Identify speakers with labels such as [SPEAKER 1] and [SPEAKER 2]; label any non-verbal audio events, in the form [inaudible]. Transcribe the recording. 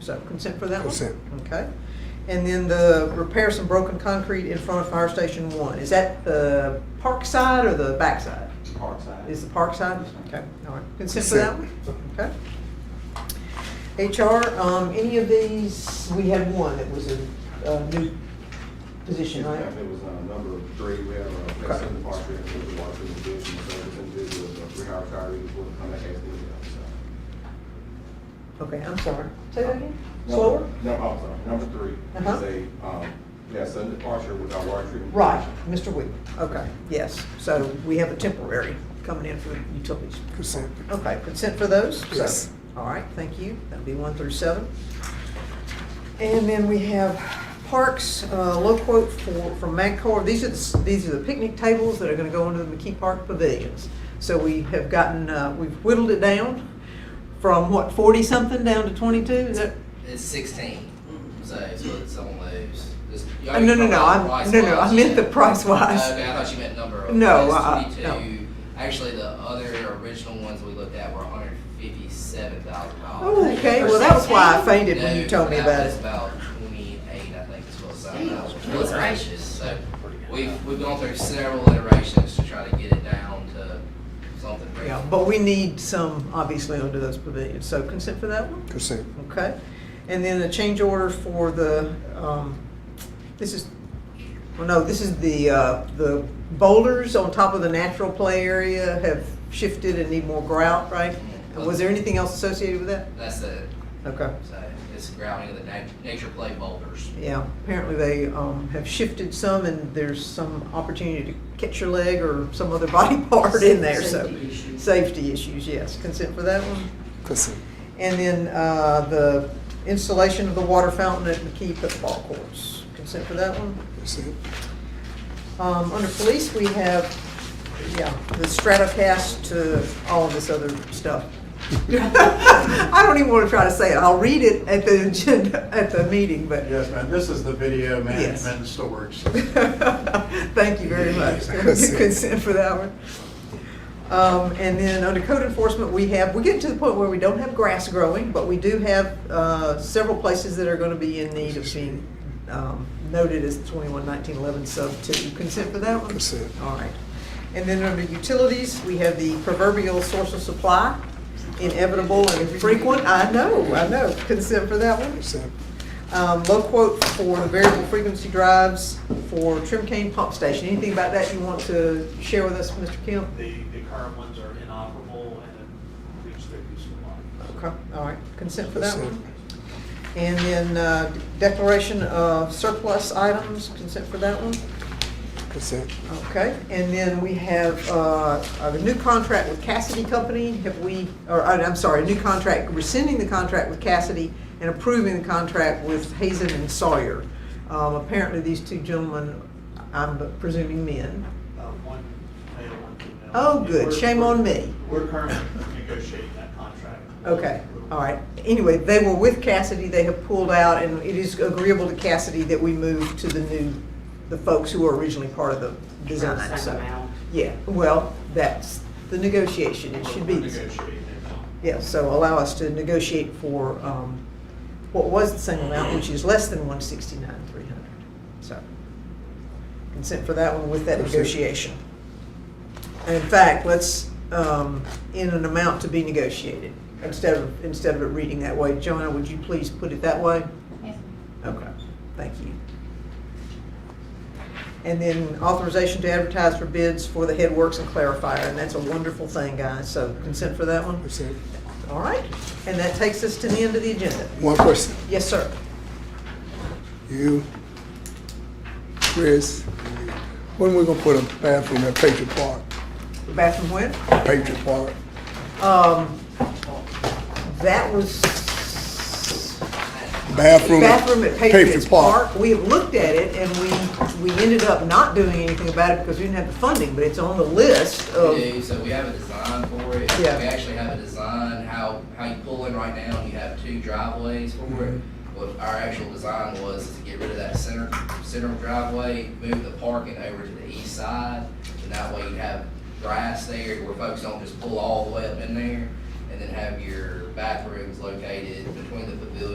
[SPEAKER 1] So consent for that one?
[SPEAKER 2] Consent.
[SPEAKER 1] Okay. And then the repair some broken concrete in front of Fire Station One. Is that the park side or the back side?
[SPEAKER 3] Parkside.
[SPEAKER 1] Is the park side? Okay, all right. Consent for that one?
[SPEAKER 2] Consent.
[SPEAKER 1] Okay. HR, um, any of these, we had one that was a, a new position, right?
[SPEAKER 3] Yeah, It was uh, number three, we have a place in the park, we have a water in the building, so it's individual, uh, three hour retirees will come back as needed. so.
[SPEAKER 1] Okay, I'm sorry. Say that again?
[SPEAKER 3] Number-
[SPEAKER 1] Slower?
[SPEAKER 3] No, I'm sorry, number three
[SPEAKER 1] Uh-huh.
[SPEAKER 3] is a, um, yeah, sudden departure with our water treatment.
[SPEAKER 1] Right, Mr. Weaver. Okay, yes. So we have a temporary coming in for utilities.
[SPEAKER 2] Consent.
[SPEAKER 1] Okay, consent for those?
[SPEAKER 2] Yes.
[SPEAKER 1] All right, thank you. That'll be one through seven. And then we have parks, uh, low quote for, from Magcor. These are, the s- these are the picnic tables that are gonna go into the McKee Park pavilions. So we have gotten, uh, we've whittled it down from what, forty-something down to twenty-two? Is that?
[SPEAKER 4] It's sixteen, so, so it's on those. This- y'all
[SPEAKER 1] Oh, Mm-hmm. no, no,
[SPEAKER 4] talking
[SPEAKER 1] no,
[SPEAKER 4] about
[SPEAKER 1] I'm-
[SPEAKER 4] price
[SPEAKER 1] no, no, I
[SPEAKER 4] wise,
[SPEAKER 1] meant the
[SPEAKER 4] yeah.
[SPEAKER 1] price wise.
[SPEAKER 4] Oh, Okay, I thought you meant number of.
[SPEAKER 1] No,
[SPEAKER 4] it's
[SPEAKER 1] uh-uh,
[SPEAKER 4] 22. Actually, the other original ones we looked at were hundred fifty-seven thousand
[SPEAKER 1] Oh,
[SPEAKER 4] dollars.
[SPEAKER 1] okay, well, that was why I fainted when you told me about it.
[SPEAKER 4] About twenty-eight, I think, is what something
[SPEAKER 5] Damn,
[SPEAKER 4] else.
[SPEAKER 5] that's right.
[SPEAKER 4] So we've, we've gone through several iterations to try to get it down to something.
[SPEAKER 1] Yeah,
[SPEAKER 4] reasonable.
[SPEAKER 1] but we need some, obviously, under those pavilions. So consent for that one?
[SPEAKER 2] Consent.
[SPEAKER 1] Okay, and then a change order for the, um, this is, well, no, this is the, uh, the boulders on top of the natural play area have shifted and need more grout, right? And Was there anything else associated with that?
[SPEAKER 4] That's it,
[SPEAKER 1] Okay,
[SPEAKER 4] so it's grounding of the nat- nature play boulders.
[SPEAKER 1] yeah, apparently they, um, have shifted some and there's some opportunity to catch your leg or some other [laughs] body part in there, so.
[SPEAKER 5] Safety issue.
[SPEAKER 1] Safety issues, yes, consent for that one?
[SPEAKER 2] Consent.
[SPEAKER 1] And then uh, the installation of the water fountain at McKee Pickleball Courts. Consent for that one?
[SPEAKER 2] Consent.
[SPEAKER 1] Um, Under police, we have, yeah, the Stratocast to all of this other stuff. [laughs] I don't even want to try to say it. I'll read it at the agenda, at the meeting, but
[SPEAKER 6] Yes, ma'am, this is the video
[SPEAKER 1] Yes.
[SPEAKER 6] management and storage.
[SPEAKER 1] [laughs] Thank you very much. Consent for that one. Um, and then under code enforcement, we have, we get to the point where we don't have grass growing, but we do have, uh, several places that are gonna be in need of being, um, noted as twenty-one nineteen eleven sub two. Consent for that one?
[SPEAKER 2] Consent.
[SPEAKER 1] All right. And then under utilities, we have the proverbial source of supply, inevitable and frequent. I know, I know. Consent for that one?
[SPEAKER 2] Consent.
[SPEAKER 1] Um, low quote for the variable frequency drives for Trim Cane Pump Station. Anything about that you want to share with us, Mr. Kemp?
[SPEAKER 7] The, the current ones are inoperable and have reached their useful life.
[SPEAKER 1] Okay, all right, consent for that
[SPEAKER 2] Consent.
[SPEAKER 1] one. And then uh, declaration of surplus items, consent for that one.
[SPEAKER 2] Consent.
[SPEAKER 1] Okay, and then we have uh, a new contract with Cassidy Company. Have we, or uh, I'm sorry, a new contract, rescinding the contract with Cassidy and approving the contract with Hazen and Sawyer. Um, Apparently, these two gentlemen, I'm presuming men.
[SPEAKER 7] Uh, One male, one female.
[SPEAKER 1] Oh, good,
[SPEAKER 7] We're-
[SPEAKER 1] shame on me.
[SPEAKER 7] We're currently negotiating that contract.
[SPEAKER 1] Okay, all right. Anyway, they were with Cassidy, they have pulled out, and it is agreeable to Cassidy that we move to the new, the folks who were originally part of the design,
[SPEAKER 5] Second
[SPEAKER 1] so.
[SPEAKER 5] round.
[SPEAKER 1] Yeah, well, that's the negotiation, it should be.
[SPEAKER 7] We're negotiating their amount.
[SPEAKER 1] Yeah, so allow us to negotiate for um, what was the same amount, which is less than one sixty-nine, three hundred. So consent for that one with that
[SPEAKER 2] Consent.
[SPEAKER 1] negotiation. And in fact, let's, um, in an amount to be negotiated, instead of, instead of it reading that way. Joanna, would you please put it that way? Okay, thank you. And then authorization to advertise for bids for the headworks and clarifier, and that's a wonderful thing, guys, so consent for that one?
[SPEAKER 2] Consent.
[SPEAKER 1] All right, and that takes us to the end of the agenda.
[SPEAKER 2] One question.
[SPEAKER 1] Yes, sir.
[SPEAKER 2] You, Chris, when we gonna put a bathroom at Patriot Park?
[SPEAKER 1] Bathroom when?
[SPEAKER 2] Patriot Park.
[SPEAKER 1] Um, that was.
[SPEAKER 2] Bathroom. at
[SPEAKER 1] Bathroom at Patriots Park. We have looked at it and we, we ended up not doing anything about it because we didn't have the funding, but it's on the list of.
[SPEAKER 4] We do, so we have a design for it. We
[SPEAKER 1] oh. Yeah.
[SPEAKER 4] actually have a design, how, how you pull in right now, you have two driveways for it.
[SPEAKER 1] Mm-hmm.
[SPEAKER 4] What our actual design was is to get rid of that center, center driveway, move the parking over to the east side. And that way you have grass there where folks don't just pull all the way up in there. And then have your bathrooms located between the pavilion